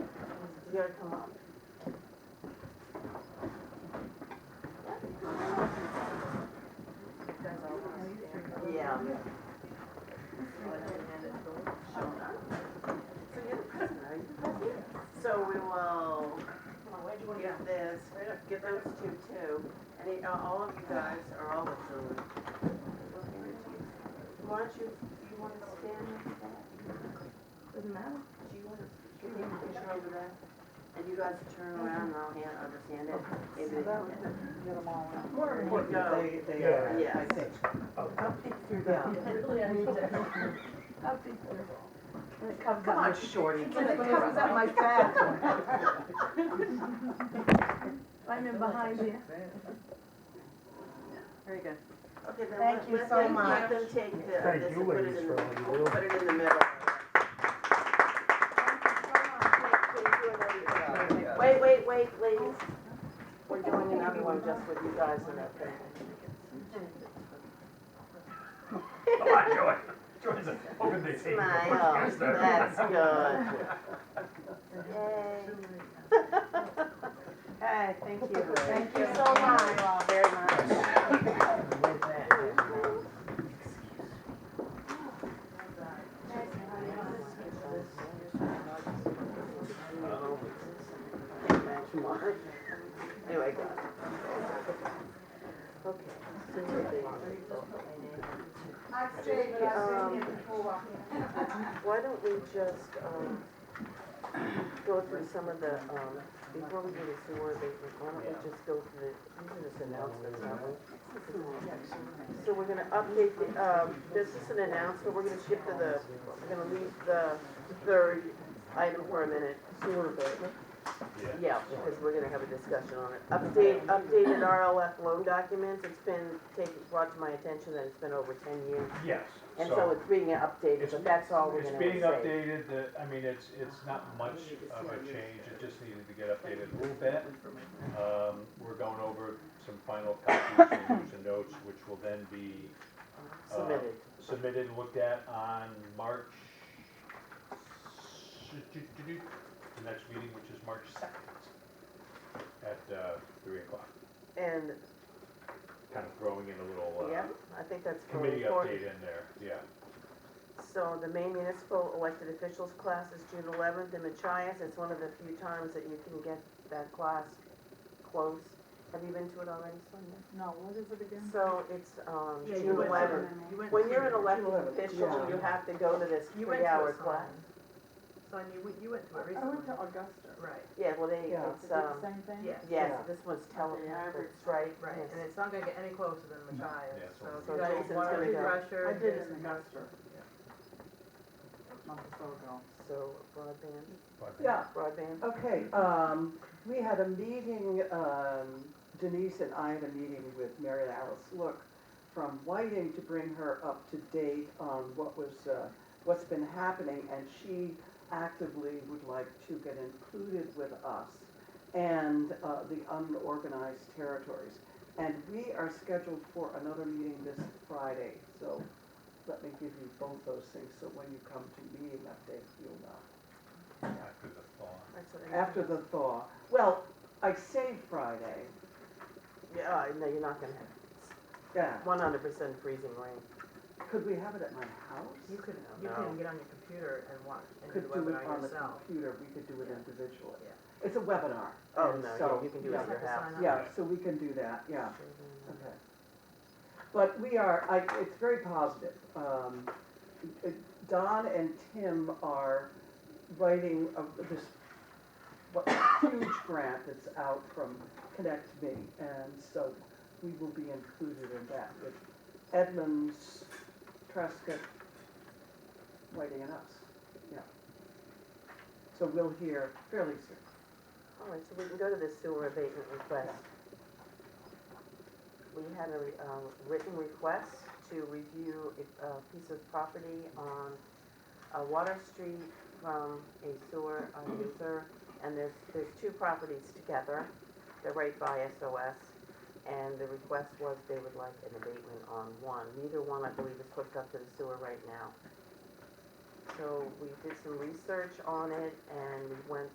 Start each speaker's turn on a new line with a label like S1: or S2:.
S1: You gotta come up. Yeah. So you're the president, are you the president? So we will get this, get those two too. And he- uh, all of you guys are all the children. Why don't you, you want to stand next to that?
S2: Doesn't matter.
S1: Do you want to, can you push her over there? And you guys turn around and I'll hand, understand it. Maybe they-
S3: More
S1: important, they-
S3: they
S4: are,
S1: I Yes. think. Come on, Shorty.
S2: It covers up my back. I'm in behind you.
S1: Very good. Okay, then
S2: Thank
S1: let-
S2: you
S1: let
S2: so
S1: them-
S2: much.
S1: Let them take the,
S4: Thank
S1: this
S4: you
S1: and put it
S4: ladies
S1: in,
S4: for
S1: the-
S4: all you do.
S1: put it in the middle. Wait, wait, wait, ladies. We're doing another one just with you guys and that thing.
S4: Come on, Joy. Joy's a open the table.
S1: Smile,
S4: Yes, sir.
S1: that's good. Hey, thank you.
S2: Thank you so much.
S1: Very much. Anyway, go
S2: I've stayed,
S1: but I've been
S2: here before.
S1: Why don't we just, um, go through some of the, um, before we do the sewer abatement, why don't we just go through the, these are just announcements, aren't we? So we're gonna update the, um, this is an announcement, we're gonna shift to the, we're gonna leave the third item for a minute. Sewer abatement? Yeah, because we're gonna have a discussion on it. Update, updated RLF loan documents, it's been taken, brought to my attention that it's been over ten years.
S5: Yes,
S1: And so
S5: so
S1: it's being updated,
S5: It's-
S1: but that's all we're
S5: it's
S1: gonna say.
S5: being updated, the, I mean, it's, it's not much of a change, it just needed to get updated a little bit. Um, we're going over some final copies and use and notes, which will then be uh,
S1: Submitted.
S5: submitted and looked at on March, the next meeting, which is March second, at, uh, three o'clock,
S1: And,
S5: kind of throwing in a little,
S1: yeah,
S5: uh,
S1: I think that's really
S5: committee
S1: important.
S5: update in there, yeah.
S1: So the Maine Municipal Elected Officials class is June eleventh in Machias. It's one of the few times that you can get that class close. Have you been to it already, Sonia?
S2: No, what is it again?
S1: So it's, um,
S3: Yeah, you
S1: June
S3: went to
S1: eleventh. When you're an elected
S3: June 11th,
S1: official,
S3: yeah.
S1: you have to go to this
S3: You went to
S1: three-hour
S3: it, Sonia.
S1: class.
S3: Son, you went, you went to it
S2: I
S3: recently.
S2: went to Augusta.
S3: Right,
S1: Yeah, well, they,
S3: Yeah.
S1: it's, um,
S2: Same thing?
S3: yes,
S1: yes,
S3: yeah.
S1: this one's telling, it's right,
S3: right,
S1: yes.
S3: and it's not gonna get any closer than
S5: Yeah,
S3: Machias, so if
S1: so
S3: you guys
S1: Jason's
S3: want
S1: gonna
S3: to be
S1: go.
S3: pressure.
S2: I did in Augusta.
S1: So broadband,
S5: But-
S6: Yeah,
S1: broadband,
S6: okay, um, we had a meeting, um, Denise and I had a meeting with Mary Alice Look from Whiting to bring her up to date on what was, uh, what's been happening, and she actively would like to get included with us and, uh, the unorganized territories. And we are scheduled for another meeting this Friday, so let me give you both those things, so when you come to meeting update, you'll know.
S5: After the thaw.
S1: that's what I.
S6: After the thaw. Well, I say Friday,
S1: Yeah, uh, no, you're not gonna have
S6: yeah.
S1: one hundred percent freezing rain.
S6: Could we have it at my house?
S3: You can,
S1: No.
S3: you can get on your computer and watch, and do
S6: Could
S3: the
S6: do it
S3: webinar
S6: on the
S3: yourself.
S6: computer, we could do it
S3: Yeah.
S6: individually.
S3: Yeah.
S6: It's a webinar.
S1: Oh,
S6: and
S1: no,
S6: so-
S1: yeah, you can do it
S3: You
S1: at
S3: just
S1: your
S3: have to
S1: house.
S3: sign up.
S6: Yeah, so we can do that, yeah, okay. But we are, I, it's very positive. Um, it- Don and Tim are writing of this what- huge grant that's out from Connect Me, and so we will be included in that with Edmonds, Trescott, Whiting and us, yeah. So we'll hear fairly soon.
S1: All right, Oh, so we can go to the sewer abatement request. We had a re- um, written request to review a a piece of property on uh, Water Street from a sewer uh, user. And there's, there's two properties together. They're right by SOS. And the request was they would like an abatement on one. Neither one, I believe, is hooked up to the sewer right now. So we did some research on it and we went